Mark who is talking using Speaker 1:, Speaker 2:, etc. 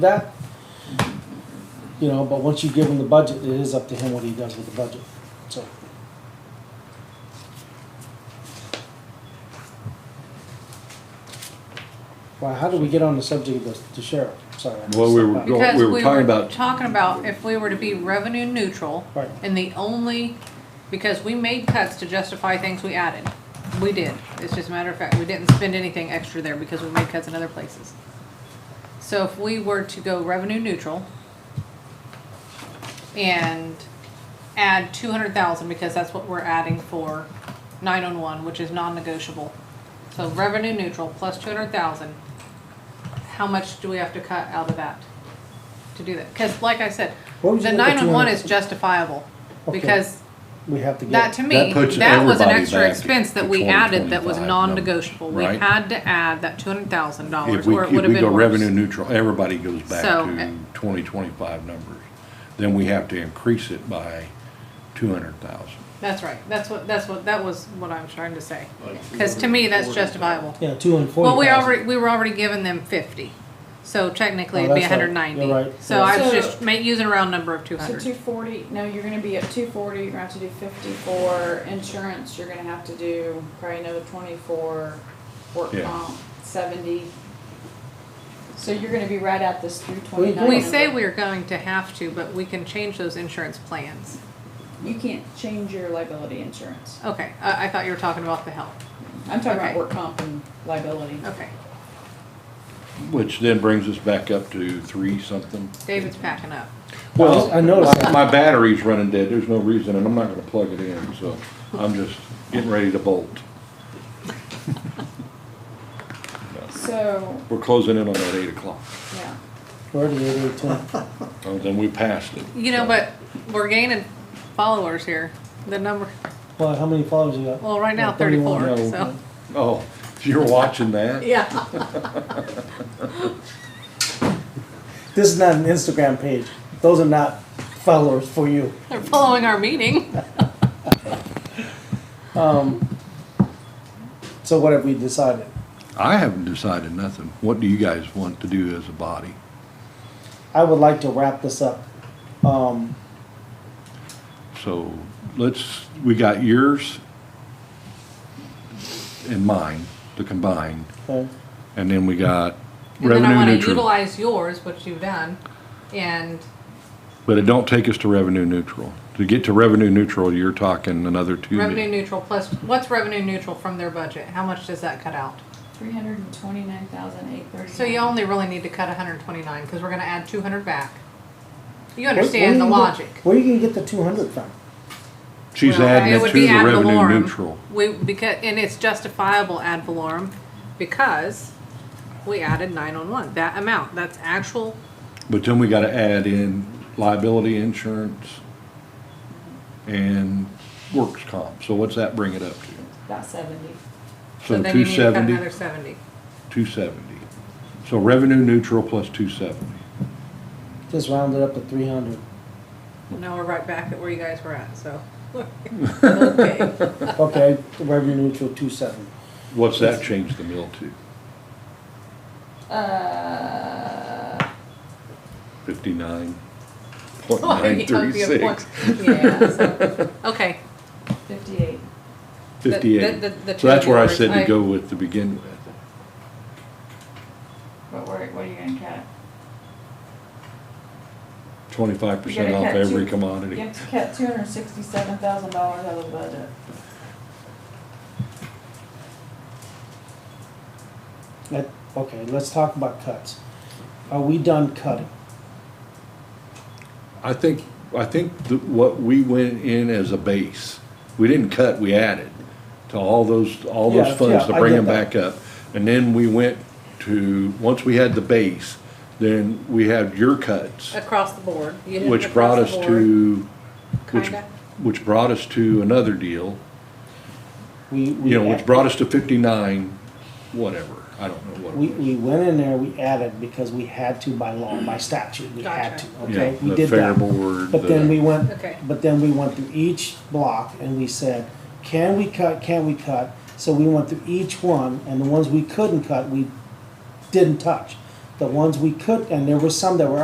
Speaker 1: that. You know, but once you give him the budget, it is up to him what he does with the budget, so. Wow, how did we get on the subject of the- the sheriff? Sorry. I
Speaker 2: Well, we
Speaker 1: messed
Speaker 2: were
Speaker 1: that up.
Speaker 2: going-
Speaker 3: Because
Speaker 2: we
Speaker 3: we
Speaker 2: were
Speaker 3: were
Speaker 2: talking about-
Speaker 3: talking about if we were to be revenue neutral.
Speaker 1: Right.
Speaker 3: And the only, because we made cuts to justify things we added. We did. It's just a matter of fact, we didn't spend anything extra there because we made cuts in other places. So if we were to go revenue neutral and add two hundred thousand, because that's what we're adding for nine-on-one, which is non-negotiable. So revenue neutral plus two hundred thousand, how much do we have to cut out of that to do that? Cause like I said,
Speaker 1: What was
Speaker 3: the
Speaker 1: it that you
Speaker 3: nine-on-one
Speaker 1: wanted-
Speaker 3: is justifiable,
Speaker 1: Okay.
Speaker 3: because
Speaker 1: We have to
Speaker 3: that
Speaker 1: get,
Speaker 3: to
Speaker 2: That
Speaker 3: me,
Speaker 2: puts
Speaker 3: that was an
Speaker 2: everybody
Speaker 3: extra
Speaker 2: back
Speaker 3: expense that
Speaker 2: to
Speaker 3: we added that was
Speaker 2: 2025,
Speaker 3: non-negotiable. We
Speaker 2: right?
Speaker 3: had to add that two hundred thousand
Speaker 2: If
Speaker 3: dollars,
Speaker 2: we,
Speaker 3: or it
Speaker 2: if
Speaker 3: would have
Speaker 2: we go
Speaker 3: been
Speaker 2: revenue
Speaker 3: worse.
Speaker 2: neutral, everybody goes back
Speaker 3: So, uh,
Speaker 2: to twenty twenty-five numbers. Then we have to increase it by two hundred thousand.
Speaker 3: That's right, that's what, that's what, that was what I'm trying to say, cause to me, that's justifiable.
Speaker 1: yeah, two hundred and forty
Speaker 3: Well,
Speaker 1: thousand.
Speaker 3: we already, we were already giving them fifty, so technically
Speaker 1: Oh,
Speaker 3: it'd be
Speaker 1: that's right.
Speaker 3: hundred and ninety.
Speaker 1: You're right.
Speaker 3: So I was
Speaker 4: So-
Speaker 3: just ma- using a round number of two
Speaker 4: So
Speaker 3: hundred.
Speaker 4: two forty, no, you're gonna be at two forty, you're gonna have to do fifty for insurance, you're gonna have to do probably another twenty for work
Speaker 2: Yeah.
Speaker 4: comp, seventy. So you're gonna be right at this three
Speaker 1: We-
Speaker 4: twenty-nine.
Speaker 3: We say we're going to have to, but we can change those insurance plans.
Speaker 4: You can't change your liability insurance.
Speaker 3: Okay, I, I thought you were talking about the health,
Speaker 4: I'm talking
Speaker 3: Okay.
Speaker 4: about work comp and liability.
Speaker 3: okay,
Speaker 2: Which then brings us back up to three something.
Speaker 3: David's packing up.
Speaker 1: Well, I noticed that.
Speaker 2: My battery's running dead. There's no reason, and I'm not gonna plug it in, so I'm just getting ready to bolt.
Speaker 4: So,
Speaker 2: We're closing in on that eight o'clock.
Speaker 4: yeah,
Speaker 1: We're already at eight ten.
Speaker 2: Oh, then we passed it.
Speaker 3: You
Speaker 2: so.
Speaker 3: know, but we're gaining followers here, the number,
Speaker 1: Well, how many followers you got?
Speaker 3: well, right now
Speaker 1: Well, 31,
Speaker 3: thirty-four,
Speaker 2: no.
Speaker 3: so.
Speaker 2: Oh, you're watching that?
Speaker 3: Yeah.
Speaker 1: This is not an Instagram page. Those are not followers for you.
Speaker 3: They're following our meeting.
Speaker 1: So what have we decided?
Speaker 2: I haven't decided nothing. What do you guys want to do as a body?
Speaker 1: I would like to wrap this up. Um,
Speaker 2: So let's, we got yours and mine, the combined,
Speaker 1: okay.
Speaker 2: and then we got
Speaker 3: And then I
Speaker 2: revenue
Speaker 3: wanna
Speaker 2: neutral.
Speaker 3: utilize yours, which you've done, and
Speaker 2: But it don't take us to revenue neutral. To get to revenue neutral, you're talking another two
Speaker 3: revenue
Speaker 2: million.
Speaker 3: neutral plus, what's revenue neutral from their budget? How much does that cut out?
Speaker 4: three hundred and twenty-nine thousand eight thirty.
Speaker 3: So you only really need to cut hundred and twenty-nine, cause we're gonna add two hundred back. You
Speaker 1: Where-
Speaker 3: understand the
Speaker 1: where you gonna-
Speaker 3: logic.
Speaker 1: Where you gonna get the two hundred from?
Speaker 2: She's
Speaker 3: Well,
Speaker 2: adding
Speaker 3: it
Speaker 2: it
Speaker 3: would
Speaker 2: to
Speaker 3: be
Speaker 2: the
Speaker 3: ad
Speaker 2: revenue
Speaker 3: valorem.
Speaker 2: neutral.
Speaker 3: We, because, and it's justifiable ad valorem because we added nine on one, that amount, that's actual,
Speaker 2: But then we gotta add in liability insurance and works comp. So what's that bring it up to?
Speaker 4: About seventy.
Speaker 3: so
Speaker 2: So
Speaker 3: then you
Speaker 2: two
Speaker 3: need to cut
Speaker 2: seventy,
Speaker 3: another seventy.
Speaker 2: two seventy. So revenue neutral plus two seventy.
Speaker 1: Just round it up to three hundred.
Speaker 3: Now we're right back at where you guys were at, so. Okay.
Speaker 1: Okay, revenue neutral, two seventy.
Speaker 2: What's that change the mill to?
Speaker 4: Uh,
Speaker 2: Fifty-nine point
Speaker 3: Oh,
Speaker 2: nine
Speaker 3: you don't
Speaker 2: three
Speaker 3: be a
Speaker 2: six.
Speaker 3: point. Yeah, so, okay.
Speaker 4: fifty-eight.
Speaker 2: Fifty-eight.
Speaker 3: The- the- the- the
Speaker 2: So that's where I
Speaker 3: two
Speaker 2: said to
Speaker 3: numbers,
Speaker 2: go with to begin with.
Speaker 4: But where, what are you gonna cut?
Speaker 2: Twenty-five percent
Speaker 4: You
Speaker 2: off
Speaker 4: gotta cut
Speaker 2: every
Speaker 4: two- You
Speaker 2: commodity.
Speaker 4: have to cut two hundred and sixty-seven thousand dollars out of the budget.
Speaker 1: Let, okay, let's talk about cuts. Are we done cutting?
Speaker 2: I think, I think that what we went in as a base, we didn't cut, we added to all those, all
Speaker 1: Yeah,
Speaker 2: those funds to
Speaker 1: yeah, I
Speaker 2: bring
Speaker 1: get
Speaker 2: them
Speaker 1: that.
Speaker 2: back up. And then we went to, once we had the base, then we had your cuts,
Speaker 3: Across the board. you hit
Speaker 2: which
Speaker 3: across
Speaker 2: brought
Speaker 3: the
Speaker 2: us
Speaker 3: board,
Speaker 2: to, which,
Speaker 3: Kinda.
Speaker 2: which brought us to another deal.
Speaker 1: We, we.
Speaker 2: you know, which
Speaker 1: add-
Speaker 2: brought us to fifty-nine, whatever, I don't know what. it
Speaker 1: We,
Speaker 2: was.
Speaker 1: we went in there, we added because we had to by law, by statute, we had to,
Speaker 3: Gotcha.
Speaker 2: Yeah,
Speaker 1: okay? We
Speaker 2: the
Speaker 1: did
Speaker 2: fair
Speaker 1: that.
Speaker 2: board,
Speaker 1: But then
Speaker 2: the-
Speaker 1: we went,
Speaker 3: Okay.
Speaker 1: but then we went through each block and we said, can we cut, can we cut? So we went through each one and the ones we couldn't cut, we didn't touch. The ones we could, and there were some that were